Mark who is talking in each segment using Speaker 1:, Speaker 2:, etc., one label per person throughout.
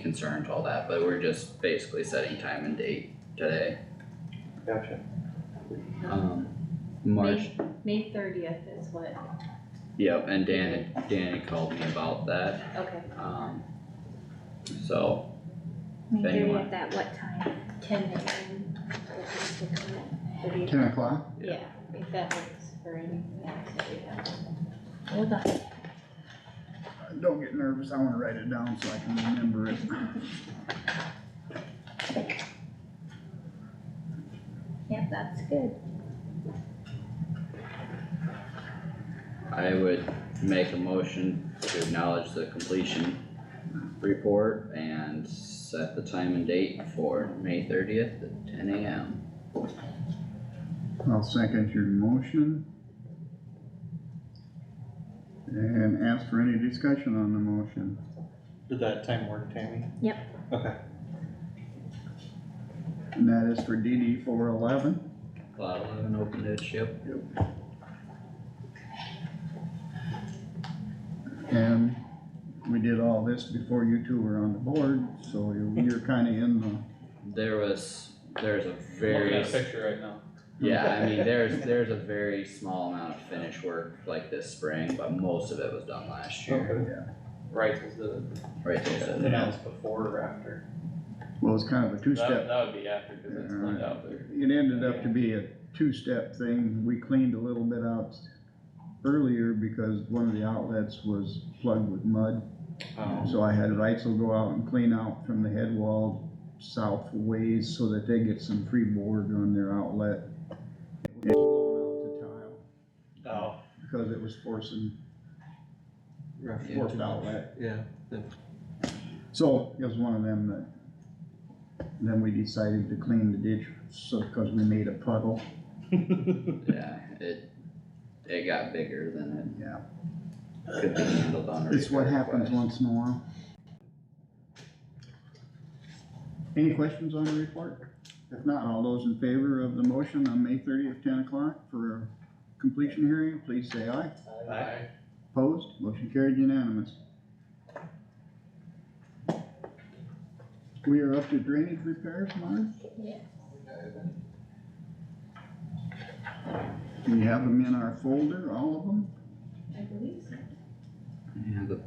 Speaker 1: concerns, all that, but we're just basically setting time and date today.
Speaker 2: Gotcha.
Speaker 1: Um, March,
Speaker 3: May thirtieth is what,
Speaker 1: yep, and Dan, had- Dan had called me about that,
Speaker 3: okay,
Speaker 1: um, so,
Speaker 4: Make
Speaker 1: Then you
Speaker 4: sure
Speaker 1: want-
Speaker 4: it's at what time?
Speaker 3: ten AM. we'll just stick to that. 30th.
Speaker 5: ten o'clock?
Speaker 3: Yeah, if that works for anything else that we have.
Speaker 4: Hold on.
Speaker 5: Don't get nervous, I wanna write it down so I can remember it.
Speaker 4: Yep, that's good.
Speaker 1: I would make a motion to acknowledge the completion report and set the time and date for May thirtieth at ten AM.
Speaker 5: I'll second your motion. And ask for any discussion on the motion.
Speaker 2: Did that time work, Tammy?
Speaker 4: Yep.
Speaker 2: Okay,
Speaker 5: And that is for DD four eleven.
Speaker 1: Cloud eleven open ditch, yep.
Speaker 5: And we did all this before you two were on the board, so you're, you're kinda in the,
Speaker 1: There was, there's a
Speaker 2: looking
Speaker 1: very,
Speaker 2: at a picture right now.
Speaker 1: yeah, I mean, there's, there's a very small amount of finish work like this spring, but most of it was done last year.
Speaker 2: Right, is the,
Speaker 5: Oh.
Speaker 1: Right there,
Speaker 2: and that's before or after?
Speaker 5: well, it's kind of a
Speaker 2: That,
Speaker 5: two-step.
Speaker 2: that would be after, cause it's cleaned out there.
Speaker 5: It ended up to be a two-step thing. We cleaned a little bit out earlier because one of the outlets was plugged with mud.
Speaker 2: Um,
Speaker 5: So I had Reitzel go out and clean out from the head wall south ways so that they get some free board on their outlet. It was blowing out
Speaker 2: oh,
Speaker 5: the tile Because it was forcing
Speaker 2: rough.
Speaker 5: forced outlet.
Speaker 2: Yeah.
Speaker 5: So it was one of them that, then we decided to clean the ditch, so, cause we made a puddle,
Speaker 1: yeah, it, it got bigger than
Speaker 5: yeah.
Speaker 1: it could be handled on. a
Speaker 5: It's what
Speaker 1: repair
Speaker 5: happens
Speaker 1: request.
Speaker 5: once in a while. Any questions on the report? If not, all those in favor of the motion on May thirtieth, ten o'clock for a completion hearing, please say aye.
Speaker 2: Aye.
Speaker 5: Opposed, motion carried unanimous. We are up to drainage repairs, Marge?
Speaker 4: Yeah.
Speaker 5: We have them in our folder, all of them?
Speaker 3: I believe so.
Speaker 1: Yeah, the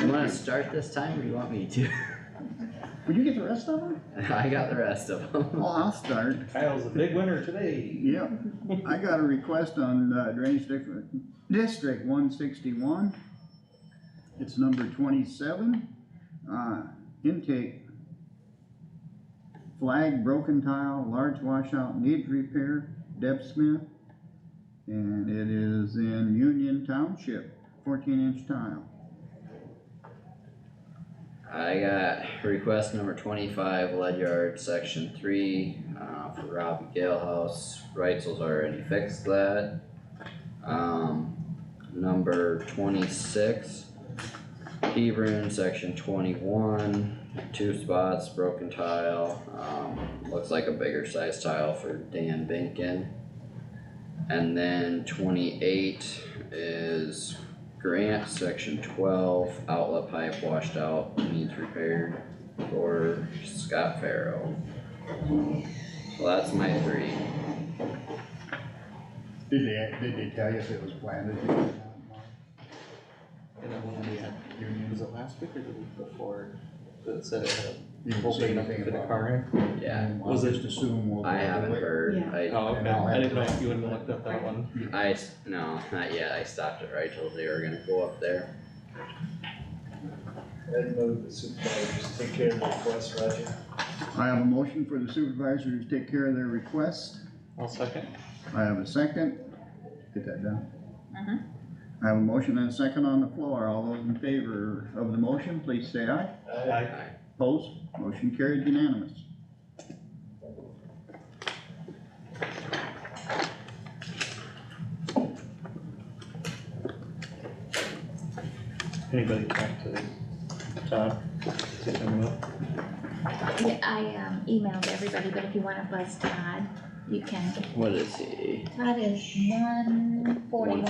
Speaker 1: You wanna start this time or you want me to?
Speaker 5: Would you get the rest of them?
Speaker 1: I got the rest of them.
Speaker 5: Well, I'll start.
Speaker 2: Kyle's the big winner today.
Speaker 5: Yep, I got a request on uh, Drainage District, District one sixty-one. It's number twenty-seven, uh, intake. Flag, broken tile, large washout, needs repair, Deb Smith. And it is in Union Township, fourteen inch tile.
Speaker 1: I got request number twenty-five, lead yard, section three, uh, for Robbie Galehouse, Reitzel's already fixed that. Um, number twenty-six, Hebron, section twenty-one, two spots, broken tile, um, looks like a bigger size tile for Dan Binkin. And then twenty-eight is Grant, section twelve, outlet pipe washed out, needs repaired for Scott Farrell. So that's my three.
Speaker 5: Did they, did they tell you if it was planted?
Speaker 2: And then when we had, was it last week or the week before, that said it had a whole big enough to fit a car
Speaker 1: Yeah,
Speaker 2: Was it-
Speaker 5: assume.
Speaker 1: I haven't heard.
Speaker 2: in?
Speaker 1: I,
Speaker 2: Oh, okay, I didn't know if you wouldn't looked up that one.
Speaker 1: I, s- no, not yet. I stopped it right till they were gonna go up there.
Speaker 6: Ed move the supervisors take care of the request, Roger.
Speaker 5: I have a motion for the supervisors to take care of their request.
Speaker 2: I'll second.
Speaker 5: I have a second. Get that down. I have a motion and a second on the floor. All those in favor of the motion, please say aye.
Speaker 6: Aye.
Speaker 5: Opposed? Motion carried unanimous.
Speaker 2: Anybody back to Todd? Get him up.
Speaker 4: Yeah, I, um, emailed everybody, but if you wanna buzz Todd, you can.
Speaker 1: What is he?
Speaker 4: Todd is one forty-one.